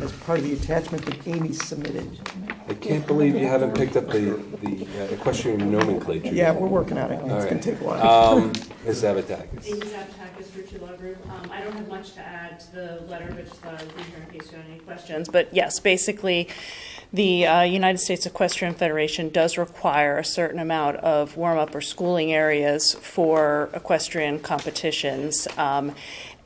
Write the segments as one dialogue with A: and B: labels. A: as part of the attachment that Amy submitted.
B: I can't believe you haven't picked up the, the uh, equestrian nomenclature.
A: Yeah,
B: yet.
A: we're working on it. It's gonna
B: Alright.
A: take a while.
B: Um, Ms. Zavatakis.
C: Amy Zapatakis for Chula Group. Um, I don't have much to add to the letter, but just thought I'd be here in case you had any questions. But yes, basically, the uh, United States Equestrian Federation does require a certain amount of warm-up or schooling areas for equestrian competitions. Um,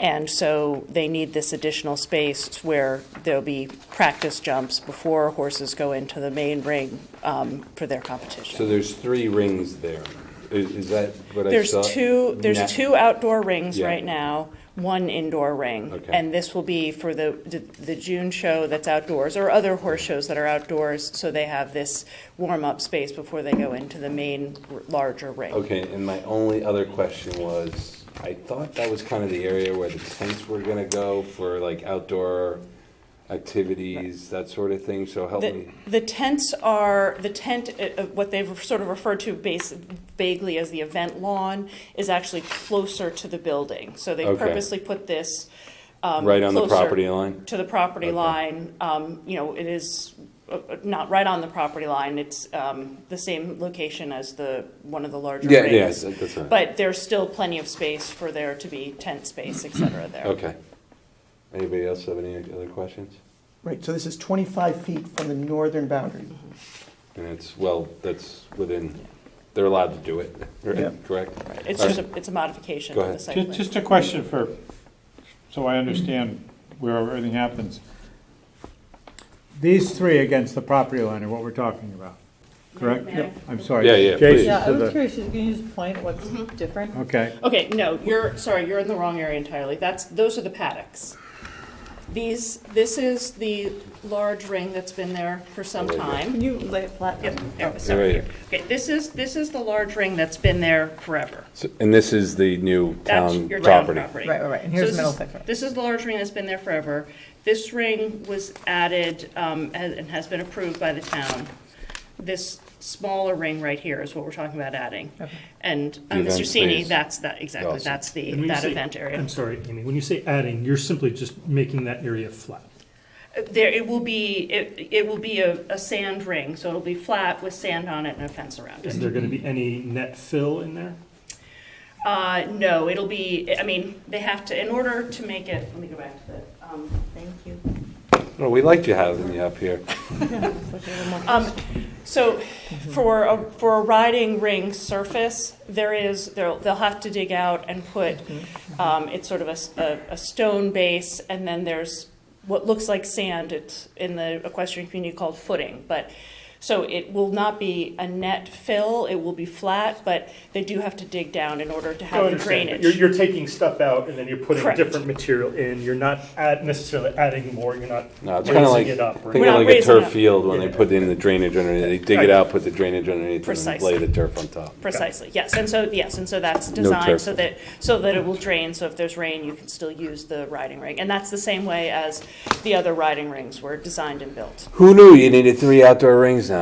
C: And so they need this additional space where there'll be practice jumps before horses go into the main ring um, for their competition.
B: So there's three rings there. I- Is, that what I
C: There's
B: saw?
C: two,
B: Na-
C: there's two outdoor rings
B: Yeah.
C: right now, one indoor ring.
B: Okay.
C: And this will be for the, the- the June show that's outdoors, or other horse shows that are outdoors, so they have this warm-up space before they go into the main r- larger ring.
B: Okay, and my only other question was, I thought that was kind of the area where the tents were gonna go for like outdoor activities, that sort of thing, so help
C: The,
B: me.
C: the tents are, the tent, uh, uh, what they've sort of referred to base vaguely as the event lawn, is actually closer to the building. So they
B: Okay.
C: purposely put this, um,
B: Right on the
C: closer.
B: property line?
C: to the property
B: Okay.
C: line. Um, You know, it is uh, uh, not right on the property line. It's um, the same location as the, one of the larger
B: Yeah, yeah,
C: rings.
B: that's right.
C: But there's still plenty of space for there to be tent space, et cetera, there.
B: Okay. Anybody else have any other questions?
A: Right, so this is 25 feet from the northern boundary.
B: And it's, well, that's within, they're allowed to do it, right?
A: Yeah.
B: correct?
C: It's just, a it's a modification
B: Go
C: of the
B: ahead.
C: site
D: Just,
C: plan.
D: just a question for, so I understand where everything happens. These three against the property line are what we're talking about, correct?
C: May I?
D: I'm sorry.
B: Yeah, yeah, please.
D: Jason
E: Yeah, I
D: to
E: was
D: the,
E: curious, you can you just point what's different?
D: okay,
C: Okay, no, you're, sorry, you're in the wrong area entirely. That's, those are the paddocks. These, this is the large ring that's been there for some
B: Right here.
C: time.
E: Can you lay it flat?
C: Yep, there we go.
B: Right
C: Sorry,
B: here.
C: here. Okay, this is, this is the large ring that's been there forever.
B: So- And this is the new
C: That's
B: town
C: your town
B: property?
C: property.
E: Right, right, right, and
C: So
E: here's
C: this
E: the middle
C: is-
E: section.
C: This is the large ring that's been there forever. This ring was added um, and and has been approved by the town. This smaller ring right here is what we're talking about adding. And uh,
B: The event
C: Mr. Sini,
B: space.
C: that's, that, exactly,
B: Awesome.
C: that's the,
F: And when you
C: that
F: say-
C: event area.
F: I'm sorry, Amy, when you say adding, you're simply just making that area flat.
C: Uh, There, it will be, it it will be a a sand ring, so it'll be flat with sand on it and a fence around it.
F: Is there gonna be any net fill in there?
C: Uh, no, it'll be, I mean, they have to, in order to make it, let me go back to the, um, thank you.
B: Well, we liked you having you up here.
C: Um, so for a, for a riding ring surface, there is, they'll, they'll have to dig out and put, um, it's sort of a s- a, a stone base, and then there's what looks like sand, it's in the equestrian community called footing, but, so it will not be a net fill, it will be flat, but they do have to dig down in order to have the drainage.
F: You're, you're taking stuff out and then you're putting
C: Correct.
F: different material in. You're not add, necessarily adding more, you're not
B: No, it's kind of like,
F: raising it up. or
B: think
C: We're
B: of
C: not
B: like a
C: raising
B: turf
C: it.
B: field when they put in the drainage underneath. They dig it
F: Right.
B: out, put the drainage underneath, and then lay
C: Precisely.
B: the turf on top.
C: Precisely, yes, and so, yes, and so that's
B: No
C: designed so
B: turf.
C: that, so that it will drain, so if there's rain, you can still use the riding ring. And that's the same way as the other riding rings were designed and built.
B: Who knew you needed three outdoor rings now?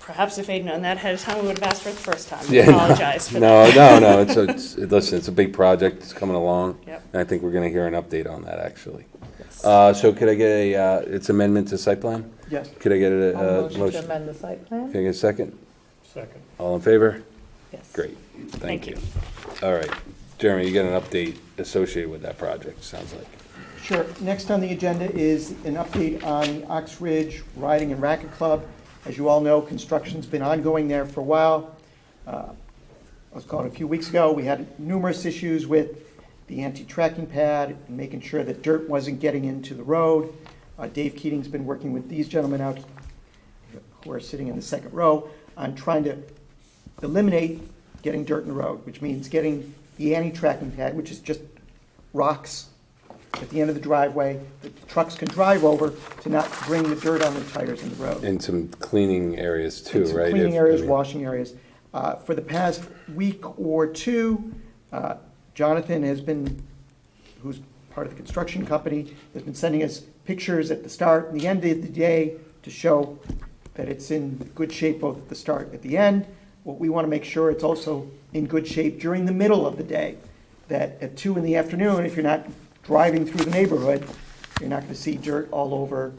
C: Perhaps if they'd known that ahead of time, we would have asked for it the first time. I
B: Yeah, no.
C: apologize for that.
B: No, no, no, it's, a- it's, it- listen, it's a big project, it's coming along.
C: Yep.
B: And I think we're gonna hear an update on that, actually.
C: Yes.
B: Uh, so could I get a, uh, it's amendment to site plan?
A: Yes.
B: Could I get a,
E: I'll
B: uh
E: motion to
B: motion?
E: amend the site
B: Can
E: plan?
B: I get a second?
F: Second.
B: All in favor?
E: Yes.
B: Great, thank
C: Thank
B: you.
C: you.
B: All right, Jeremy, you got an update associated with that project, sounds like.
A: Sure. Next on the agenda is an update on Ox Ridge Riding and Racket Club. As you all know, construction's been ongoing there for a while. Uh, I was calling a few weeks ago, we had numerous issues with the anti-tracking pad, and making sure that dirt wasn't getting into the road. Uh, Dave Keating's been working with these gentlemen out, who are sitting in the second row, on trying to eliminate getting dirt in the road, which means getting the anti-tracking pad, which is just rocks at the end of the driveway that the trucks can drive over to not bring the dirt on their tires in the road.
B: And some cleaning areas too,
A: And some
B: right?
A: Cleaning
B: If-
A: areas,
B: I mean-
A: washing areas. Uh, For the past week or two, uh, Jonathan has been, who's part of the construction company, has been sending us pictures at the start and the end of the day to show that it's in good shape both at the start and at the end. What we want to make sure it's also in good shape during the middle of the day, that at two in the afternoon, if you're not driving through the neighborhood, you're not going to see dirt all over